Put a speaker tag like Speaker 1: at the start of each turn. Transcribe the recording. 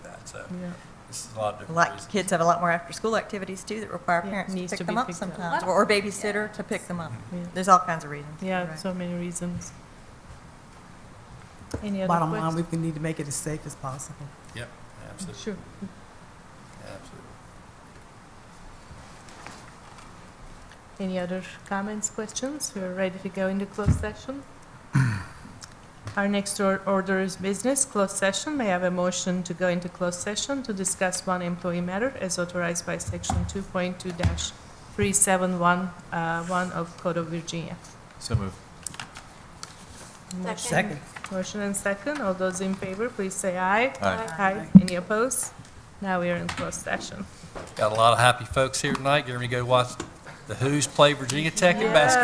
Speaker 1: so
Speaker 2: Yeah.
Speaker 1: this is a lot of
Speaker 3: A
Speaker 1: different
Speaker 3: lot,
Speaker 1: reasons.
Speaker 3: kids have a lot more after-school activities too that require
Speaker 2: Yeah,
Speaker 3: parents
Speaker 2: needs
Speaker 3: to
Speaker 2: to
Speaker 3: pick them
Speaker 2: be
Speaker 3: up
Speaker 2: picked up.
Speaker 3: sometimes, or or babysitter to pick them
Speaker 1: Mm-hmm.
Speaker 3: up.
Speaker 2: Yeah.
Speaker 3: There's all kinds of reasons.
Speaker 2: Yeah,
Speaker 3: Right.
Speaker 2: so many reasons. Any other
Speaker 4: Bottom line,
Speaker 2: questions?
Speaker 4: we need to make it as safe as possible.
Speaker 1: Yep, absolutely,
Speaker 2: Sure.
Speaker 1: absolutely.
Speaker 2: Any other comments, questions? We're ready to go into closed session. Our next or- order is business, closed session. May I have a motion to go into closed session to discuss one employee matter as authorized by Section 2.2-3711 uh, of Code of Virginia?
Speaker 5: So moved.
Speaker 2: Motion-
Speaker 4: Second.
Speaker 2: Motion and second. All those in favor, please say aye.
Speaker 5: Aye.
Speaker 2: Aye. Any opposed? Now we are in closed session.
Speaker 1: Got a lot of happy folks here tonight, getting ready to go watch the Who's play Virginia Tech in basketball.